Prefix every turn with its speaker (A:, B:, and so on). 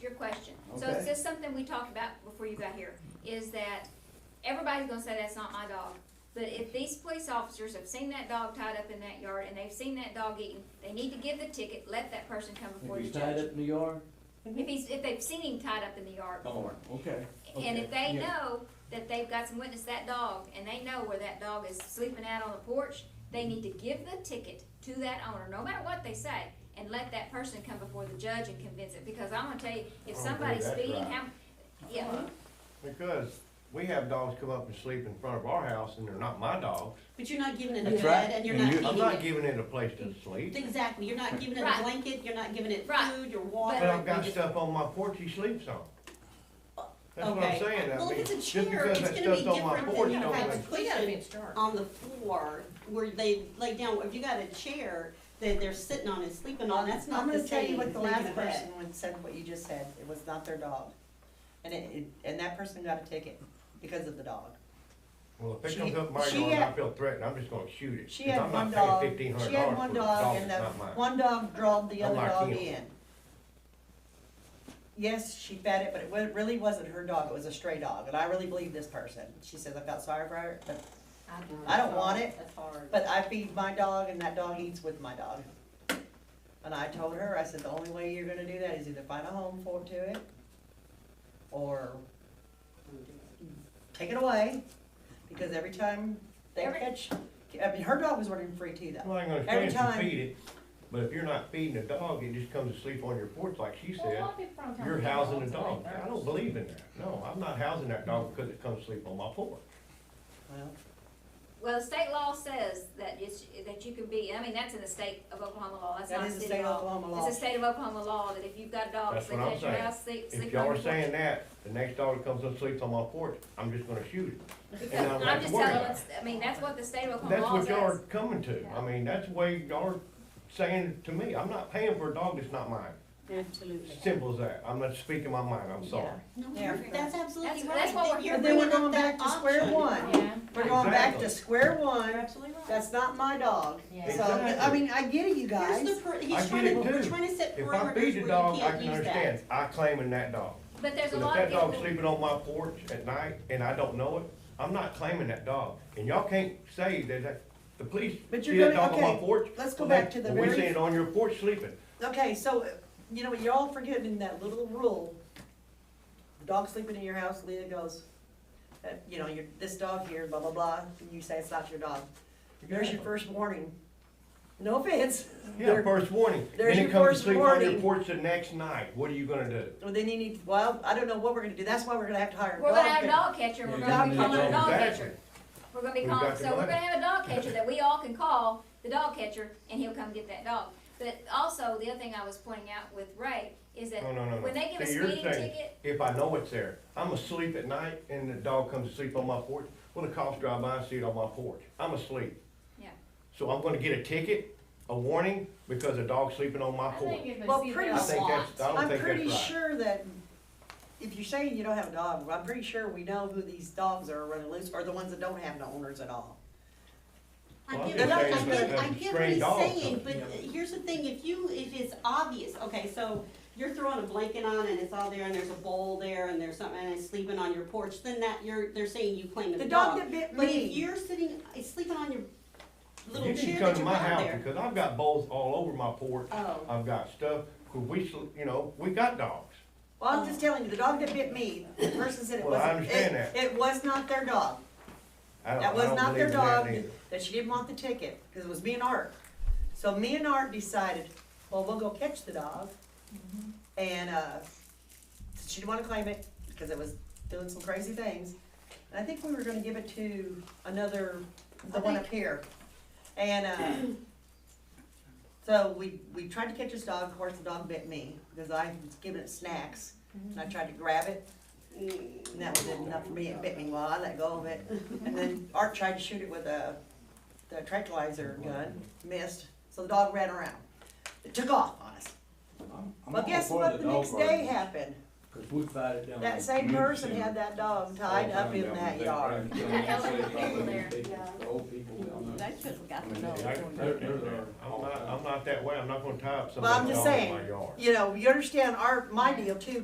A: question. So
B: Okay.
A: it's just something we talked about before you got here, is that everybody's gonna say that's not my dog. But if these police officers have seen that dog tied up in that yard and they've seen that dog eaten, they need to give the ticket, let that person come before
B: If
A: the
B: you tied
A: judge.
B: up in the yard?
A: If he's, if they've seen him tied up in the yard before.
B: Okay.
A: And if
B: okay,
A: they
B: yeah.
A: know that they've got some witness, that dog, and they know where that dog is sleeping out on the porch, they need to give the ticket to that owner, no matter what they say, and let that person come before the judge and convince it, because I'm gonna tell you, if
C: Oh, Okay,
A: somebody's
C: that's
A: speeding,
C: right.
A: how, yeah,
D: Uh-huh.
C: Because we have dogs come up and sleep in front of our house and they're not my dogs.
E: But you're not giving it a
B: That's
E: bed
B: right.
E: and you're
B: And
E: not
B: you-
E: feeding
C: I'm not
E: it.
C: giving it a place to sleep.
E: Exactly, you're not giving it
A: Right.
E: a blanket, you're not giving it
A: Right.
E: food or
C: But
E: water.
C: I've got
E: You're just-
C: stuff on my porch he sleeps on. That's what I'm
E: Okay.
C: saying. I
E: Well, if
C: mean,
E: it's a
C: just
E: chair,
C: because
E: it's
C: that
E: gonna be
C: stuff's on my
E: different than
C: porch
E: you
C: don't
E: have
C: make-
E: a On the floor where they lay down, if you got a chair that they're sitting on and sleeping on, that's
D: I'm
E: not the
D: gonna
E: same.
D: tell you what
E: as
D: the
E: making
D: last
E: a bed.
D: person would said, what you just said, it was not their dog. And it, it- and that person got a ticket because of the dog.
C: Well, if it
D: She-
C: comes up my
D: she
C: yard and I
D: had-
C: feel threatened, I'm just gonna shoot it.
D: She
C: 'cause
D: had
C: I'm not
D: one
C: paying
D: dog, she
C: $1,500
D: had one
C: for a
D: dog
C: that's
D: and the,
C: not mine.
D: one dog drove the
C: I'm
D: other
C: like
D: dog
C: him.
D: in. Yes, she fed it, but it wa- really wasn't her dog, it was a stray dog, and I really believe this person. She says, I felt sorry for her, but, I don't want it,
E: That's hard.
D: but I feed my dog and that dog eats with my dog. And I told her, I said, the only way you're gonna do that is either find a home for it to it, or take it away, because every time they
A: Every-
D: catch, I mean, her dog was running free too though.
C: Well, I ain't gonna
D: Every
C: stand if
D: time-
C: you feed it, but if you're not feeding a dog, it just comes to sleep on your porch like she said. You're housing a dog. I don't believe in that. No, I'm not housing that dog because it comes to sleep on my porch.
D: Well,
A: well, the state law says that it's, that you can be, I mean, that's in the state of Oklahoma law, that's
D: That
A: not
D: is the
A: city
D: state of
A: law.
D: Oklahoma law.
A: It's a state of Oklahoma law, that if you've got a dog,
C: That's
A: sleep
C: what I'm
A: at your
C: saying.
A: house, sleep,
C: If
A: sleep
C: y'all
A: on
C: are
A: your porch.
C: saying that, the next dog that comes up sleeps on my porch, I'm just gonna shoot it.
A: Because-
C: and I don't have
A: I'm
C: to
A: just
C: worry
A: telling,
C: about
A: it's- I mean, that's what the state of Oklahoma
C: That's
A: law
C: what
A: says.
C: y'all are coming to. I mean, that's the way y'all are saying to me. I'm not paying for a dog that's not mine.
E: Absolutely.
C: Simple as that. I'm not speaking my mind, I'm sorry.
E: No,
D: Yeah.
E: you're- that's absolutely
A: That's-
E: right.
A: that's what
E: Then
A: we're-
E: you're
D: But then we're
E: bringing
D: going
E: up that
D: back to square
E: option.
D: one.
F: Yeah,
D: We're going back to
C: Exactly.
D: square
E: You're
D: one,
E: absolutely right.
D: that's not my dog.
F: Yeah.
D: So, I
C: Exactly.
D: mean, I get it, you
E: Here's
D: guys.
E: the per-
C: I
E: he's
C: get
E: trying to,
C: it
E: we're
C: too.
E: trying to set
C: If
E: parameters
C: I
E: where you
C: feed a dog, I
E: can't
C: can
E: use
C: understand.
E: that.
C: I claiming that dog.
A: But there's a
C: But if
A: lot of
C: that
A: people.
C: dog's sleeping on my porch at night and I don't know it, I'm not claiming that dog. And y'all can't say that, that, the police
D: But
C: see
D: you're
C: that
D: gonna-
C: dog on my
D: okay,
C: porch.
D: let's go
C: well, they-
D: back to the
C: well, We
D: very-
C: seen it on your porch sleeping.
D: Okay, so, uh, you know, what, you're all forgetting that little rule. Dog sleeping in your house, Leah goes, uh, you know, you this dog here, blah, blah, blah, and you say it's not your dog. There's your first warning. No offense.
C: Yeah, first warning.
D: there's
C: Then
D: your
C: it comes
D: first
C: to sleep on your
D: warning.
C: porch the next night. What are you gonna do?
D: Well, then you need, well, I don't know what we're gonna do, that's why we're gonna have to hire a
A: We're
D: dog.
A: gonna have a
D: catcher.
A: dog catcher, we're
B: Yeah,
A: gonna be
B: you
A: calling it a
B: need
A: dog
C: Exactly.
A: catcher. We're gonna be
C: We've
A: calling,
C: got
A: so
C: the
A: we're
C: money.
A: gonna have a dog catcher that we all can call, the dog catcher, and he'll come get that dog. But also, the other thing I was pointing out with Ray is that
C: Oh, No, no, no, no.
A: when they give a
C: See, you're
A: speeding
C: saying,
A: ticket,
C: If I know it's there, I'm asleep at night and the dog comes to sleep on my porch, well, the cops drive by and see it on my porch. I'm asleep.
A: yeah.
C: So I'm gonna get a ticket, a warning, because a dog's sleeping on my
F: I think
C: porch.
F: if it's.
D: Well, pretty
C: I think that's, I don't think
D: I'm
C: that's
D: pretty
C: right.
D: sure that, if you're saying you don't have a dog, I'm pretty sure we know who these dogs are running loose, or the ones that don't have no owners at all.
E: I
C: Well,
E: get,
D: I'm
E: what- I
D: just saying
E: get,
C: that's
E: I
C: a
E: get what
C: stray
E: he's
C: dog,
E: saying,
C: so-
E: but uh,
B: Yeah.
E: here's the thing, if you, if it's obvious, okay, so you're throwing a blanket on and it's all there and there's a bowl there and there's something and it's sleeping on your porch, then that, you're, they're saying you claim the
D: The
E: dog.
D: dog that bit
E: But if
D: me,
E: you're sitting, it's sleeping on your little
C: You need to
E: chair
C: come
E: that
C: to
E: you
C: my
E: brought
C: house,
E: there.
C: because I've got bowls all over my porch.
E: Oh.
C: I've got stuff, 'cause we, sl- you know, we got dogs.
D: well, I'm just telling you, the dog that bit me, the person said it
C: Well, I
D: wasn't,
C: understand
D: it, it was not their dog.
C: I don't, I
D: That was
C: don't
D: not
C: believe
D: their
C: in that
D: dog,
C: neither.
D: that she didn't want the ticket, cause it was me and Art. So me and Art decided, well, we'll go catch the dog. And, uh, she didn't wanna claim it, cause it was doing some crazy things. And I think we were gonna give it to another, the one up here. And, uh, so we, we tried to catch this dog, of course, the dog bit me, because I was giving it snacks. And I tried to grab it,
E: Mm.
D: and that was enough for me, it bit me while I let go of it. And then Art tried to shoot it with a, the tranquilizer gun, missed, so the dog ran around. It took off on us. Well, guess what the next day happened?
B: Cause we fight it down.
D: That same person had that dog tied up in that yard.
B: The old people down there.
E: should've got
C: I mean, I can put it in there. I'm not, I'm not that way, I'm not gonna tie up
D: Well, I'm
C: somebody's
D: just
C: dog in
D: saying,
C: my yard.
D: you know, you understand our, my deal too,